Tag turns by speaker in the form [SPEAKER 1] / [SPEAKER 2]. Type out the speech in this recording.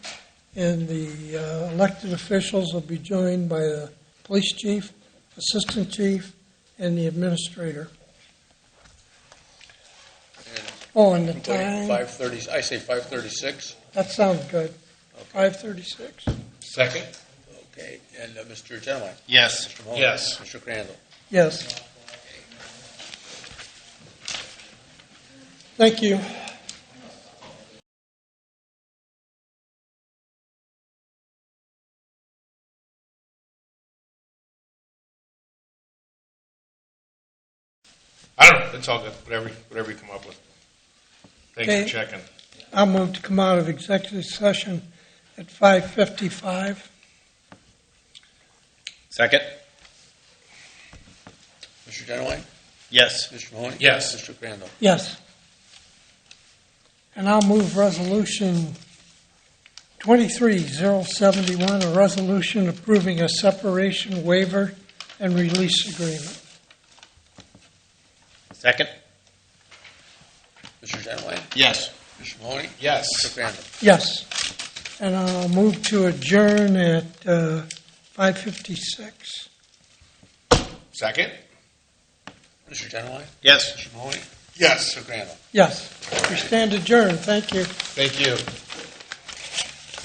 [SPEAKER 1] And the uh, elected officials will be joined by the police chief, assistant chief, and the administrator. Oh, and the
[SPEAKER 2] Including
[SPEAKER 1] time,
[SPEAKER 2] five thirty, I say five thirty-six.
[SPEAKER 1] that sounds good. 5:36?
[SPEAKER 3] Second?
[SPEAKER 2] Okay, and uh, Mr. Genowine?
[SPEAKER 3] Yes.
[SPEAKER 2] Mr. Mahoney?
[SPEAKER 3] Yes.
[SPEAKER 2] Mr. Crandall?
[SPEAKER 1] Yes. Thank you.
[SPEAKER 3] I don't know, it's all good, whatever, whatever you come up with. Thanks for
[SPEAKER 1] Okay.
[SPEAKER 3] checking.
[SPEAKER 1] I'll move to come out of executive session at 5:55.
[SPEAKER 4] Second?
[SPEAKER 2] Mr. Genowine?
[SPEAKER 4] Yes.
[SPEAKER 2] Mr. Mahoney?
[SPEAKER 3] Yes.
[SPEAKER 2] Mr. Crandall?
[SPEAKER 1] Yes. And I'll move Resolution 23071, a resolution approving a separation waiver and release agreement.
[SPEAKER 4] Second?
[SPEAKER 2] Mr. Genowine?
[SPEAKER 4] Yes.
[SPEAKER 2] Mr. Mahoney? Mr.
[SPEAKER 3] Yes.
[SPEAKER 2] Crandall?
[SPEAKER 1] Yes. And I'll move to adjourn at uh, 5:56.
[SPEAKER 3] Second?
[SPEAKER 2] Mr. Genowine?
[SPEAKER 4] Yes.
[SPEAKER 2] Mr. Mahoney?
[SPEAKER 3] Yes.
[SPEAKER 2] Mr. Crandall?
[SPEAKER 1] Yes. We stand adjourned. Thank you.
[SPEAKER 3] Thank you.